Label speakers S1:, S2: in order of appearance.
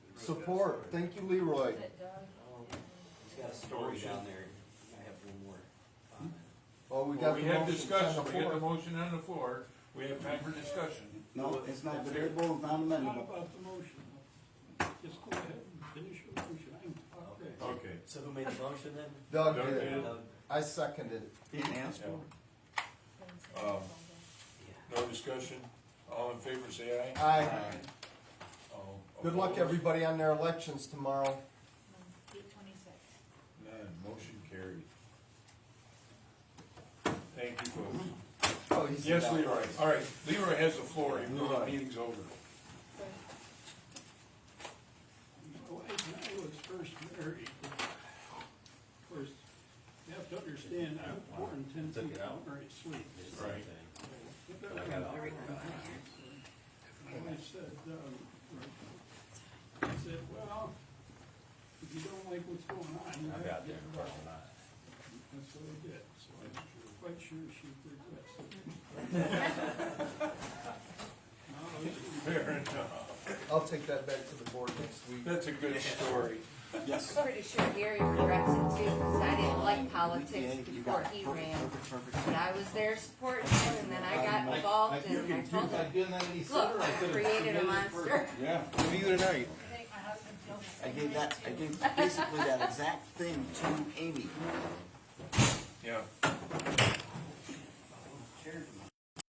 S1: support. Thank you, Leroy.
S2: Um,
S3: He's got a story down there. I have one more comment.
S1: Oh, we
S4: Well,
S1: got
S4: we
S1: the
S4: have
S1: motion on the
S4: discussion, we have the
S1: floor.
S4: motion on the floor, we have time for discussion.
S2: No, it's not debatable, it's not amendable.
S5: about the motion? Just go ahead and finish your motion. I'm-
S3: Okay.
S4: Okay.
S3: So who made the motion then?
S1: Doug
S4: Doug
S1: did.
S4: did.
S3: Doug?
S1: I seconded.
S2: Didn't ask for it.
S4: Um,
S3: Yeah.
S4: No discussion, all in favor, say aye.
S1: Aye.
S4: All
S1: Good luck,
S4: opposed?
S1: everybody, on their elections tomorrow.
S6: Eight twenty-six.
S4: None, motion carried. Thank you, folks.
S1: Oh, he's-
S4: Yes, Leroy, all right, Leroy has the floor, even though the meeting's over.
S5: My wife and I was first married. Of course, you have to understand, I was born ten
S3: Took
S5: feet
S3: it
S5: down
S3: out.
S5: where it sleeps.
S3: Did
S4: Right.
S3: something.
S5: But I got My wife said, um, I said, well, if you don't like what's going on, you
S3: I
S5: have
S3: got there
S5: to get
S3: in
S5: involved.
S3: parking lot.
S5: That's what I did, so I'm quite sure she regrets it. No, it's-
S4: Fair enough.
S1: I'll take that back to the board next week.
S4: That's a good story.
S2: Yes.
S7: Pretty sure Gary regrets it too, because I didn't like politics
S2: Yeah, you
S7: before
S2: got it.
S7: he
S2: Perfect,
S7: ran.
S2: perfect, perfect.
S7: But I was there supporting him, and then I got involved, and I told him,
S1: doing that any
S7: look, I created a monster.
S2: Yeah, neither tonight.
S6: I think my husband feels the
S2: I
S6: same
S2: gave
S6: way,
S2: that, I
S6: too.
S2: gave basically that exact thing to Amy.
S4: Yeah.